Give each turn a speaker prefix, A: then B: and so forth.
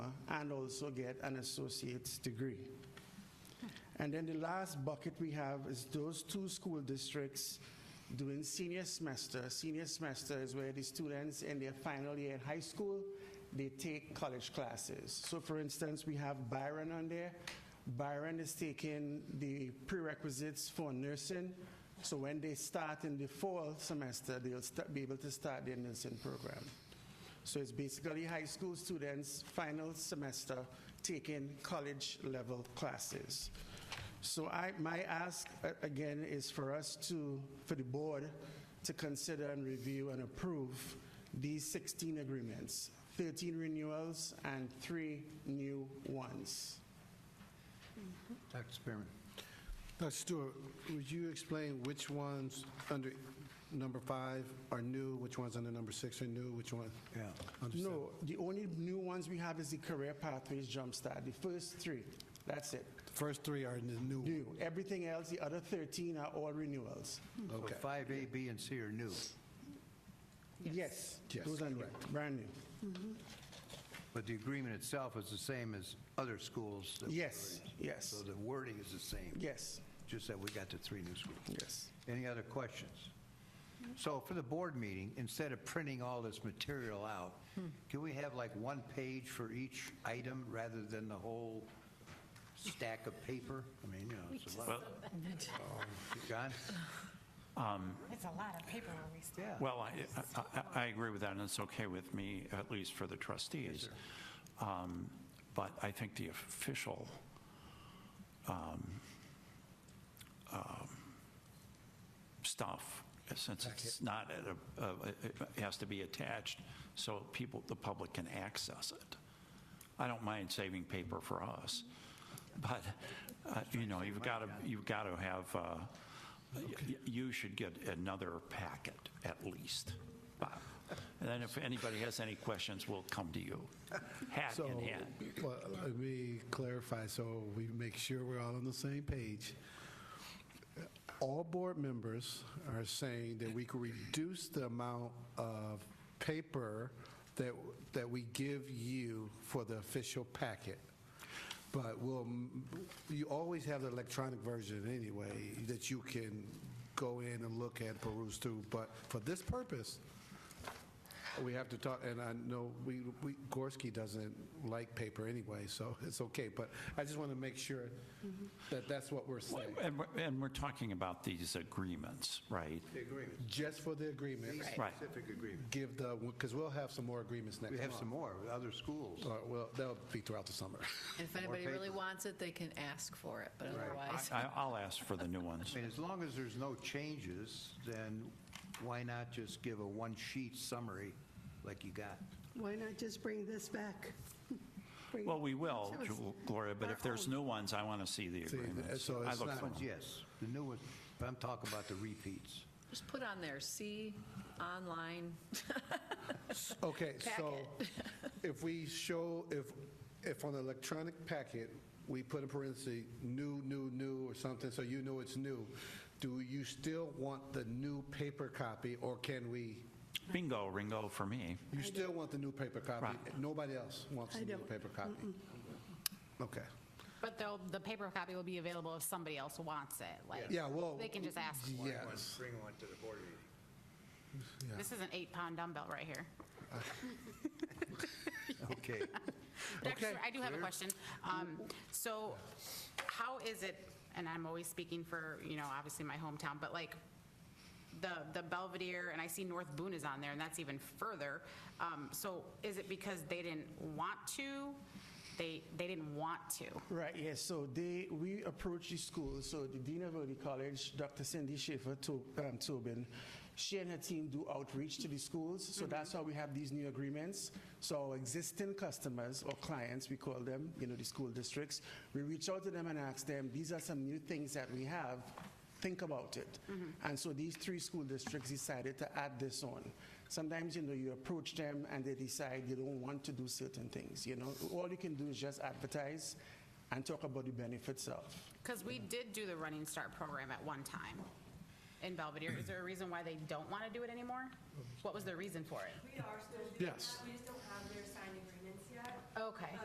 A: and also get an associate's degree. And then the last bucket we have is those two school districts doing senior semester. Senior semester is where the students in their final year in high school, they take college classes. So for instance, we have Byron on there. Byron is taking the prerequisites for nursing. So when they start in the fall semester, they'll sta- be able to start their nursing program. So it's basically high school students, final semester, taking college-level classes. So I, my ask, uh, again, is for us to, for the board, to consider and review and approve these 16 agreements, 13 renewals and three new ones.
B: Dr. Spearman.
C: Dr. Stewart, would you explain which ones under number five are new, which ones under number six are new, which one?
B: Yeah.
C: Understood.
A: No, the only new ones we have is the career pathways jumpstart, the first three, that's it,
C: The first three are the new. one.
A: new. Everything else, the other 13 are all renewals.
B: So
C: Okay.
B: 5A, B, and C are new,
A: Yes.
C: Yes.
A: Those are new, brand new.
B: but the agreement itself is the same as other schools. that we
A: Yes,
B: already-
A: yes.
B: So the wording is the same,
A: Yes,
B: just that we got the three new schools.
A: yes.
B: Any other questions? So for the board meeting, instead of printing all this material out,
A: Hmm.
B: can we have like one page for each item rather than the whole stack of paper? I mean, you know, it's a lot. John?
D: It's a lot of paper we're wasting.
B: Yeah.
E: Well, I- I- I I agree with that, and it's okay with me, at least for the trustees. Um, But I think the official um, um, stuff, since it's not, at a- uh, it it has to be attached so people, the public can access it. I don't mind saving paper for us, but, uh, you know, you've got to, you've got to have, uh, y- y- you should get another packet at least. Bob. And then if anybody has any questions, we'll come to you, hat
C: So,
E: in hand.
C: well, let me clarify, so we make sure we're all on the same page. All board members are saying that we could reduce the amount of paper that, that we give you for the official packet. But we'll, you always have the electronic version anyway, that you can go in and look at, peruse through. But for this purpose, we have to talk, and I know we, we- Gorski doesn't like paper anyway, so it's okay, but I just want to make sure that that's what we're saying,
E: And we're- And we're talking about these agreements, right?
B: The agreement,
C: just for the agreement,
E: Right.
B: specific agreement.
C: give the, because we'll have some more agreements next
B: We
C: month.
B: have some more, with other schools.
C: All right, Well, that'll be throughout the summer.
F: And if anybody really wants it, they can ask for it, but otherwise,
E: I- I'll ask for the new ones.
B: I mean, as long as there's no changes, then why not just give a one-sheet summary like you got?
G: Why not just bring this back? Bring-
E: Well, we will, Gloria, but if there's new ones, I want to see the
C: See,
E: agreements.
C: so
E: I
C: it's
E: look
C: not-
E: for
B: But
E: them.
B: Yes, the new ones, but I'm talking about the repeats.
F: just put on there, see online.
C: Okay, so if we show, if, if on the electronic packet, we put in parentheses, new, new, new, or something, so you know it's new, do you still want the new paper copy, or can we?
E: Bingo, Ringo, for me.
C: You still want the new paper copy?
E: Right.
C: Nobody else wants
G: I
C: the new
G: don't.
C: paper copy? Okay.
D: But though, the paper copy will be available if somebody else wants it, like.
C: Yeah, well,
D: They can just ask for it.
C: yes.
B: Bring one to the board meeting.
D: This is an eight-pound dumbbell right here.
B: Okay.
D: Dr.
C: Okay.
D: Stewart, I do have a question. Um, So how is it, and I'm always speaking for, you know, obviously my hometown, but like the, the Belvedere, and I see North Boone is on there, and that's even further. Um, So is it because they didn't want to? They, they didn't want to?
A: Right, yes, so they, we approached the school, so the Dean of Early College, Dr. Cindy Schaefer To- um, Tobin, she and her team do outreach to the schools, so that's how we have these new agreements. So our existing customers, or clients, we call them, you know, the school districts, we reach out to them and ask them, these are some new things that we have, think about it. And so these three school districts decided to add this on. Sometimes, you know, you approach them and they decide they don't want to do certain things, you know? All you can do is just advertise and talk about the benefits of.
D: Because we did do the Running Start program at one time in Belvedere. Is there a reason why they don't want to do it anymore? What was the reason for it?
H: We are still doing that.
C: Yes.
H: We just don't have their signed agreements yet.
D: Okay.